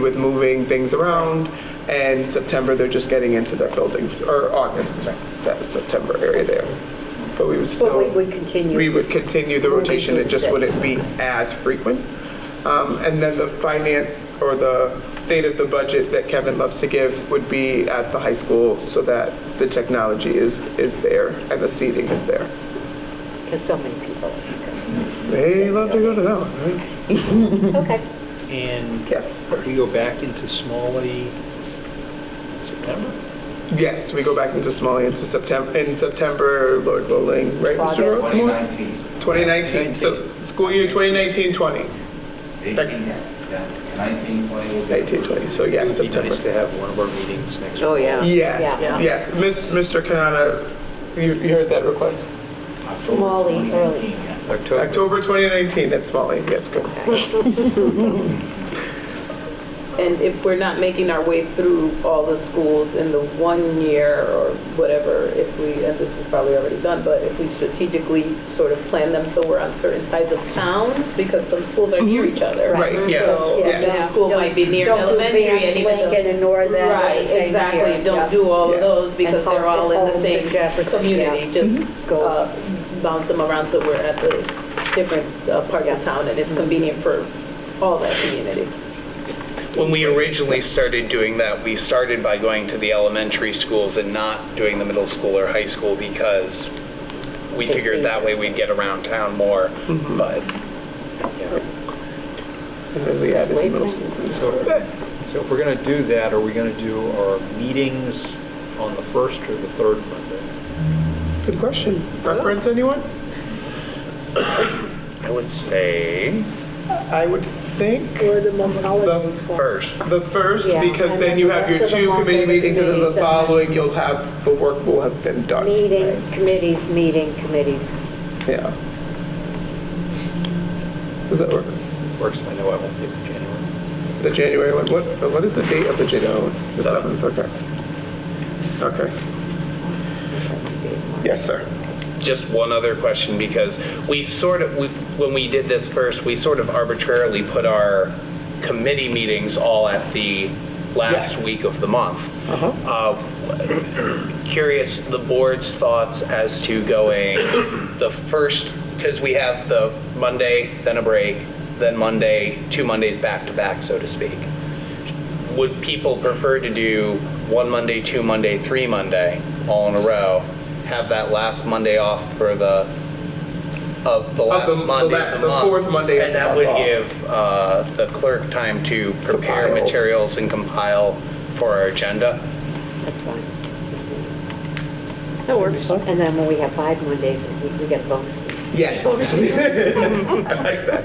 with moving things around, and September, they're just getting into their buildings, or August, that September area there. But we would still. Well, we would continue. We would continue the Moving rotation, it just things. wouldn't be as frequent. Um, And then the finance or the state of the budget that Kevin loves to give would be at the high school so that the technology is, is there and the seating is there. Because so many people. They love to go to that one, right? Okay. And Yes. we go back into Smalley September? Yes, we go back into Smalley into September, in September, Lord willing, right, Mr. August. Rothmore? 2019, 2019, so school year 2019, 20. 18, yeah, 19, 20 was. 19, 20, so yeah, It would be nice September. to have one of our meetings next week. Oh, yeah. Yes, Yeah. yes, Miss- Mr. Canada, you you heard that request? October Molly, 2019, early. yes. October. October 2019 at Smalley, yes, good. And if we're not making our way through all the schools in the one year or whatever, if we, and this is probably already done, but if we strategically sort of plan them so we're on certain sides of towns, because some schools are near each other. Mm-hmm. Right, yes, So yes. that school might be near Don't do elementary and Vance, even though. Lincoln and North Adams Right, same exactly. here. Don't do all of Yes. those because And they're all in the Holmes and same Jefferson, yeah. Mm-hmm. community. Just Go. uh, bounce them around so we're at the different uh, parts of town and it's Mm-hmm. convenient for all that community. When we originally started doing that, we started by going to the elementary schools and not doing the middle school or high school because we figured that way we'd get around town more, Mm-hmm. but And then we added the middle schools. So so if we're going to do that, are we going to do our meetings on the first or the third Monday? Good question. Preference, anyone? I would say I would think Or the Monday holidays first. the first, Yeah, because then and then you the have your rest of the two month committee will be meetings, and then the meetings, and- following, you'll have, the work will have been done. Meeting, committees, meeting, committees. Yeah. Does that work? Works, I know I won't get to January. The January one, what, what is the date of the January one? The Seventh. seventh, okay. Okay, yes, sir. Just one other question, because we've sort of, we- when we did this first, we sort of arbitrarily put our committee meetings all at the Yes. last week of the month. Uh-huh. Uh, Curious, the board's thoughts as to going the first, because we have the Monday, then a break, then Monday, two Mondays back to back, so to speak. Would people prefer to do one Monday, two Monday, three Monday, all in a row? Have that last Monday off for the, of the Of last the- the Monday la- of the the month? fourth Monday of And the that month would off. give uh, the clerk time to prepare Compile. materials and compile for our agenda? That's fine. That works. And then when we have five Mondays, we we get a bonus. Yes. I like that.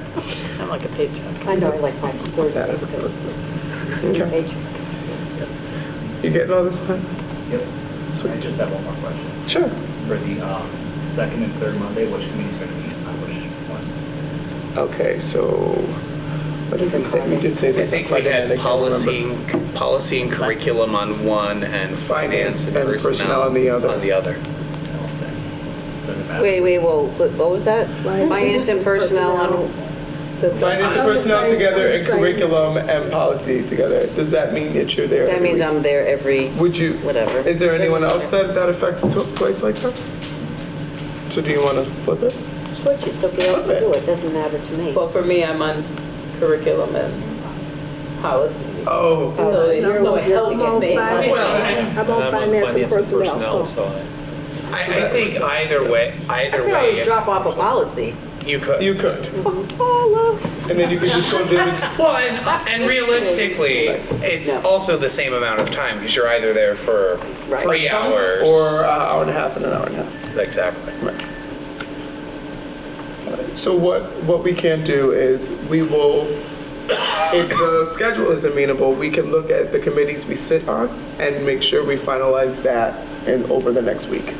I'm like a paycheck. I know, I like five That is Thursdays. a because bonus. it's Okay. page. You getting all this time? Yep. I Sweet. just have one more question. Sure. For the um, second and third Monday, which committee is going to be on which one? Okay, so what did we say? We did say I this. think on we Friday had night, I can't remember. policy, and- policy and curriculum on one, and finance and personnel on the other. On the other. And what's that? Doesn't matter. Wait, wait, whoa, what what was that? Finance and personnel on, Finance and personnel together and curriculum and policy together. Does that mean that you're there? that every means week? I'm there every, Would you? whatever. Is there anyone else that that affects to a place like that? So do you want to flip it? Switch it, so Gail can do it, doesn't matter to me. Well, for me, I'm on curriculum and policy. Oh, So it so it helps me. Well, I'm on finance and personnel, so. I- I, I think either way, I either could way, always drop it's- off a policy. you could. you could. And then you could just go visit. Well, and, and realistically, it's No. also the same amount of time, because you're either there for Right. three hours. Or an hour and a half and an hour and a half. Exactly. So what, what we can do is, we will, if the schedule is amenable, we can look at the committees we sit on and make sure we finalize that in, over the next week.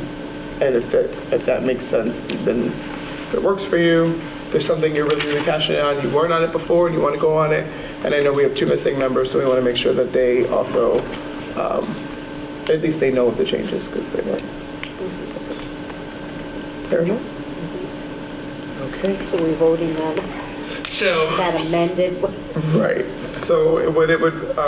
And if that, if that makes sense, then if it works for you, there's something you're really, really passionate on, you weren't on it before, and you want to go on it, and I know we have two missing members, so we want to make sure that they also, um, at least they know of the changes, because they weren't. Fair enough? Okay. So we voting on it? So. That amended? Right. So what it would,